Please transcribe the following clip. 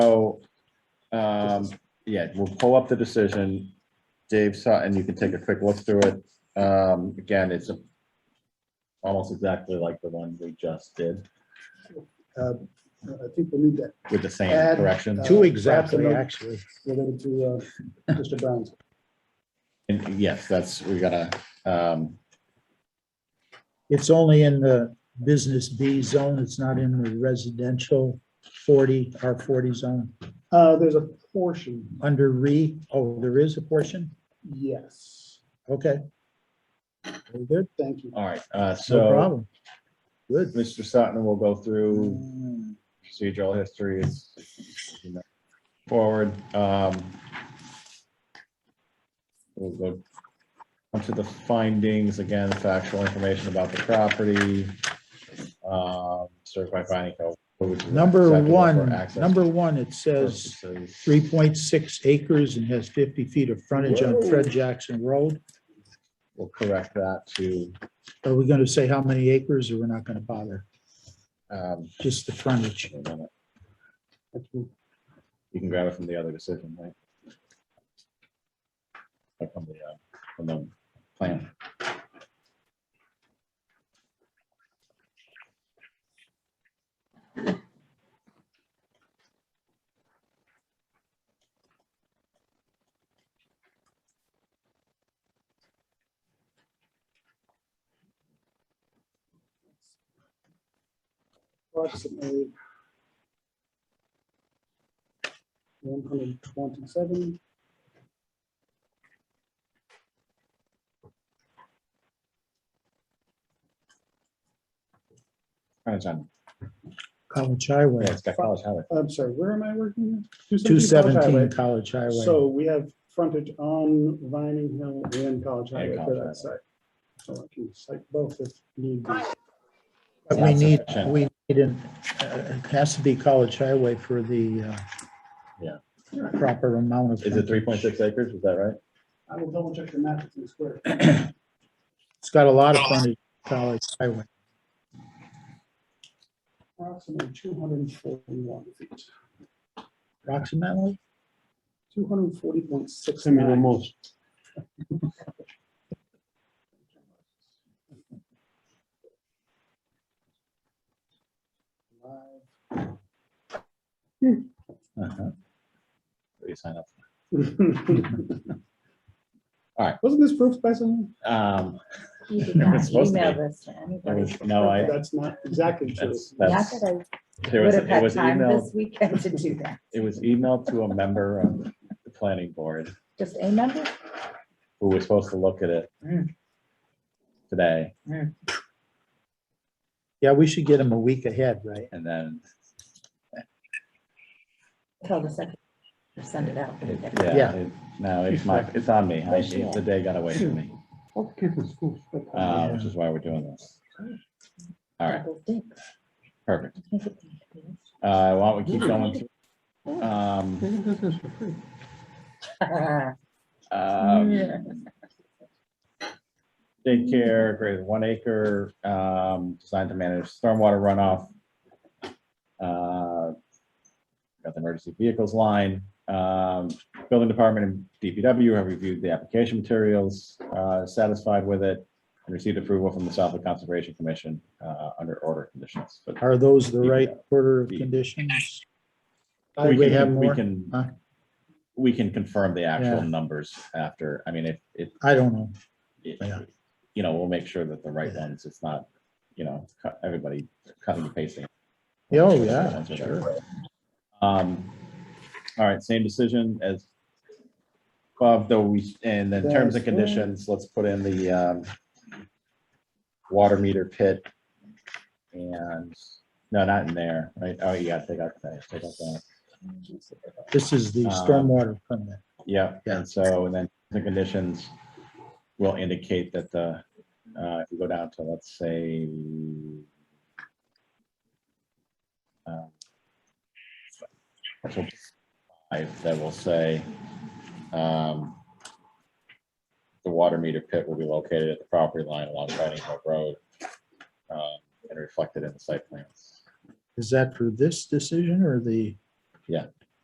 So, um, yeah, we'll pull up the decision. Dave Sutton, you can take a quick look through it. Um, again, it's a- almost exactly like the one we just did Uh, I think we need that with the same Add, correction. uh, Two exactly, Absolutely. actually. related to uh, Mr. Brown's. And yes, that's, we gotta, um, It's only in the business B zone. It's not in the residential forty, R forty zone. Uh, There's a portion, Under re, oh, there is a portion? yes. Okay. Very good. Thank you. all right, uh, No so problem. Good. Mr. Sutton will go through procedural history is you know, forward. um, We'll go on to the findings, again, factual information about the property. um, Certified finding. of- Number acceptable for one, access number one, it says purposes. three point six acres and has fifty feet of frontage on Fred Jackson Road. We'll correct that to, Are we gonna say how many acres or we're not gonna bother? um, Just the frontage. wait a minute, That's cool. you can grab it from the other decision, right? Or From the, uh, from the plan. Approximately 127. Alright, John. College Oh, Yeah, Highway, it's got college highway. I'm sorry, where am I working? here? two 217 College Highway. seventeen College Highway. So we have frontage on Vining Hill and College And Highway for College Highway. that site. So I can cite both if need be. But we need, That's sufficient. we need, an- uh, it has to be College Highway for the uh, Yeah. proper amount of. Is it three point six acres? Is that right? I will double check your map if it's square. It's got a lot of frontage, College Highway. Approximately 241 feet. Approximately? Two hundred and forty point six Send me the nine. most. Uh-huh. What do you sign up? Wasn't All right. this proof by someone? for? Um, You It was did not supposed to email be. this to It anybody. was- no, I- That's not exactly true. that's, Not that's, that I there would was, have it had was time emailed, this weekend to do that. it was emailed to a member of the planning board Just a number? who was supposed to look at it Mm. today, Yeah, we should get them a week ahead, right? and then, Tell the second, send it out. it- Yeah. yeah, it- no, it's my, it's on me. I- it- The day got away from me, All kids in school. spend time. uh, which is why we're doing this. All right, Double dicks. perfect. Uh, why don't we keep going? Mm. through? They Um, can do this for free. um, Yeah. daycare greater than one acre, um, designed to manage stormwater runoff. Uh, Got the emergency vehicles line, um, building department and DPW have reviewed the application materials, uh, satisfied with it. And received approval from the Southwood Conservation Commission, uh, under order conditions. But Are those the right Yeah. order of Yeah. conditions? we Do we can- have We more? Huh? can, we can confirm the actual Yeah. numbers after, I mean, if, if I don't know. Yeah. it- you know, we'll make sure that the right ones, it's not, you know, cut- everybody cutting and pasting. Oh, yeah, sure. Um, all right, same decision as above, though we, and then terms and That's right. conditions, let's put in the, um, water meter pit. And, no, not in there, right? Oh, yeah, take out that, take out that. This is the Uh, stormwater permit. Yeah, Yeah. and so, and then the conditions will indicate that the, uh, if you go down to, let's say, uh, so five, that will say, um, the water meter pit will be located at the property line along Vining Hill Road, um, and reflected in the site plans. Is that for this decision or the? Yeah.